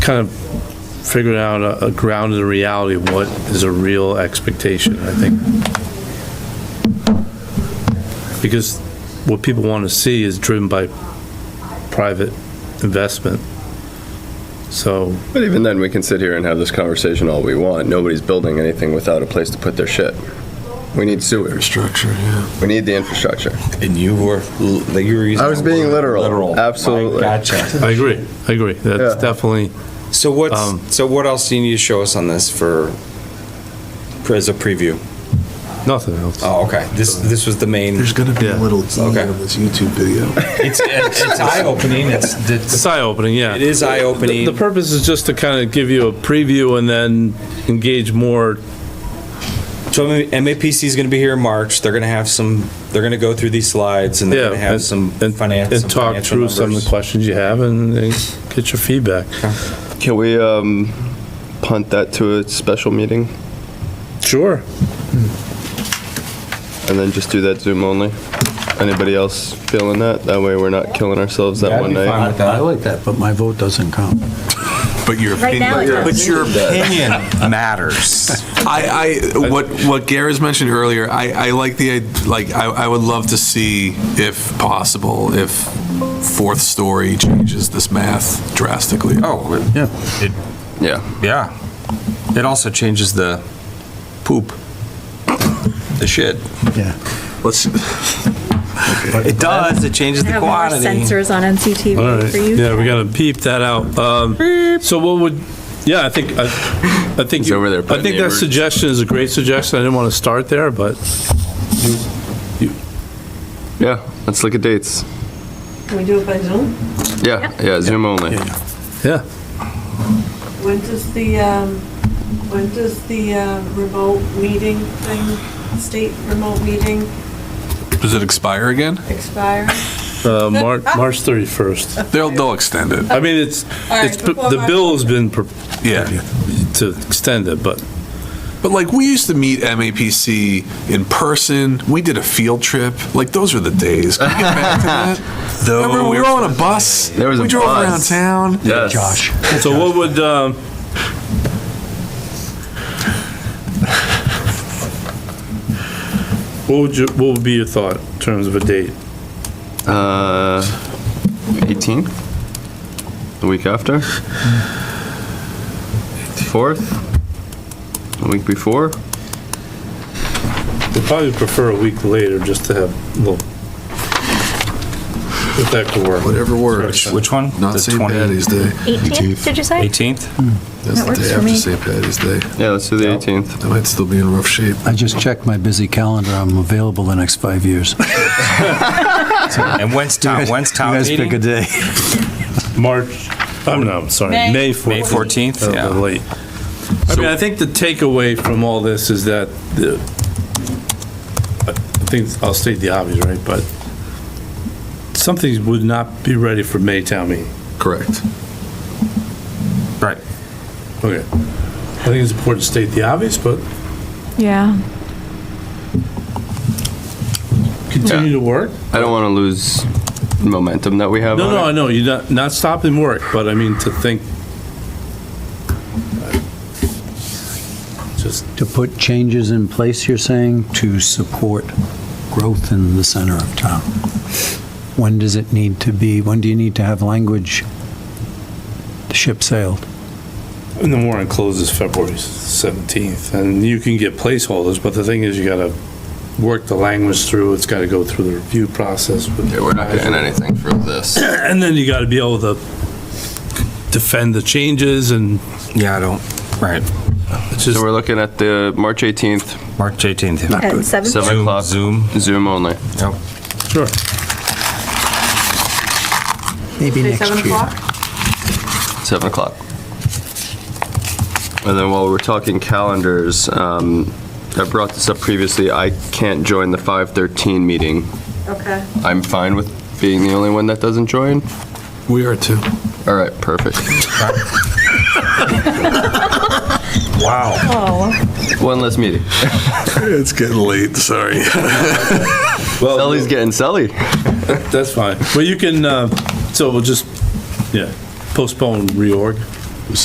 kind of figuring out a, a ground in the reality of what is a real expectation, I think. Because what people want to see is driven by private investment. So, But even then, we can sit here and have this conversation all we want. Nobody's building anything without a place to put their shit. We need sewer. Structure, yeah. We need the infrastructure. And you were, you were using. I was being the word literal. Absolutely. I Gotcha. I agree, I agree. That's Yeah. definitely, So Um, what's, so what else do you need to show us on this for, for as a preview? nothing else. Oh, okay. This, this was the main, There's gonna be Yeah. a little E Okay. on this YouTube video. it's, it's eye-opening. It's, It's it's- eye-opening, yeah. it is The the eye-opening. purpose is just to kind of give you a preview and then engage more So MAPC is going to be here in March. They're going to have some, they're going to go through these slides and they're Yeah, going to have and- some and- finance. And talk through some of the questions you have and and get your feedback. Can we um, punt that to a special meeting Sure. and then just do that Zoom only? Anybody else feeling that? That way, we're not killing ourselves that one night. I like that, but my vote doesn't count. But your Right now it opinion, does. but your opinion matters. I, I, what, what Gara's mentioned earlier, I, I like the, id- like, I, I would love to see, if possible, if fourth story changes this math drastically. Oh, Yeah. Yeah. It also changes the poop. The shit. Yeah. Let's, It does. It changes I the have more quantity. sensors on All NCTV right. for you. Yeah, we gotta peep that out. Um, So what would, yeah, I think, I I think, He's over there you- I putting think the that emer- suggestion is a great suggestion. I didn't want to start there, but Yeah. Let's look at dates. Can we do it by Zoom? Yeah. Yeah. Zoom only. yeah. When does the, um, when does the uh, remote meeting thing, state remote meeting does it expire again? expire? Uh, Mar- Ah. March 31st. They'll, they'll extend it, I mean, it's, right, it's, before the March bill's been pro- yeah. to extend it, but But like, we used to meet MAPC in person, we did a field trip, like, those were the days. Can we get back to that? Remember, we were on a bus, There was we a drove bus. around town. Yes. Josh. So what would, um, what would you, what would be your thought in terms of a date? Uh, 18th? The week after? 4th? The week before? We'd probably prefer a week later just to have a little, if that could work. Whatever works. Which one? Not The St. 20 Patty's Day. 18th, did you say? 18th? That's the That works day for after me. St. Patty's Day. Yeah, let's do the 18th. I might still be in rough shape. I just checked my busy calendar. I'm available the next five years. And when's town, when's You town guys pick a meeting? day. March, oh no, sorry, May. May May 14th. 14th? Uh, Yeah. Late. I mean, I think the takeaway from all this is that the, I think, I'll state the obvious, right, but some things would not be ready for May town meeting. Correct. Right. Okay. I think it's important to state the obvious, but Yeah. continue to work. I don't want to lose momentum that we have No, on no, it. I know, you're not, not stopping work, but I mean, to think. Just, To put changes in place, you're saying, to support growth in the center of town. When does it need to be, when do you need to have language? The ship sailed. and the warrant closes February 17th, and you can get placeholders, but the thing is, you gotta work the language through, it's gotta go through the review process. with- Yeah, we're not getting anything from this. And then you gotta be able to defend the changes, and Yeah, I don't, right. it's So just, we're looking at the March 18th, March 18th. At 7? Seven. o'clock. Zoom. Zoom only. Yep. sure. Maybe Say next year. 7 o'clock? 7 o'clock. And then while we're talking calendars, um, I brought this up previously. I can't join the 513 meeting. Okay. I'm fine with being the only one that doesn't join. We are too. All right, perfect. Wow. Oh, One less meeting. It's getting late, sorry. Well, Sully's getting Sully. that's fine, but you can, uh, so we'll just, yeah, postpone reorg.